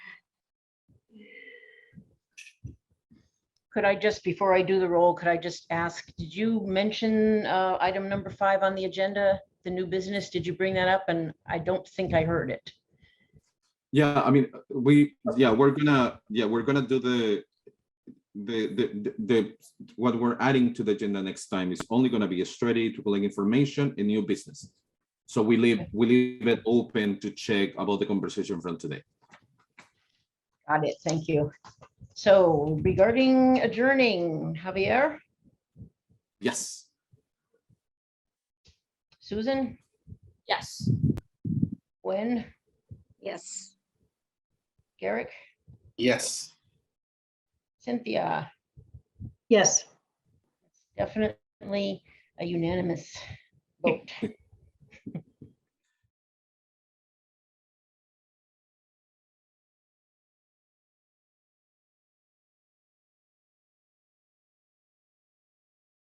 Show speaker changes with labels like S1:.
S1: Could I just, before I do the roll, could I just ask, did you mention uh, item number five on the agenda, the new business? Did you bring that up? And I don't think I heard it.
S2: Yeah, I mean, we, yeah, we're gonna, yeah, we're gonna do the, the, the, the, what we're adding to the agenda next time is only gonna be a strategy to collect information and new business. So we leave, we leave it open to check about the conversation from today.
S1: Got it. Thank you. So regarding adjourning, Javier,
S2: Yes,
S1: Susan,
S3: Yes.
S1: Gwen,
S3: Yes.
S1: Garrick,
S4: Yes.
S1: Cynthia,
S5: Yes.
S1: definitely a unanimous vote.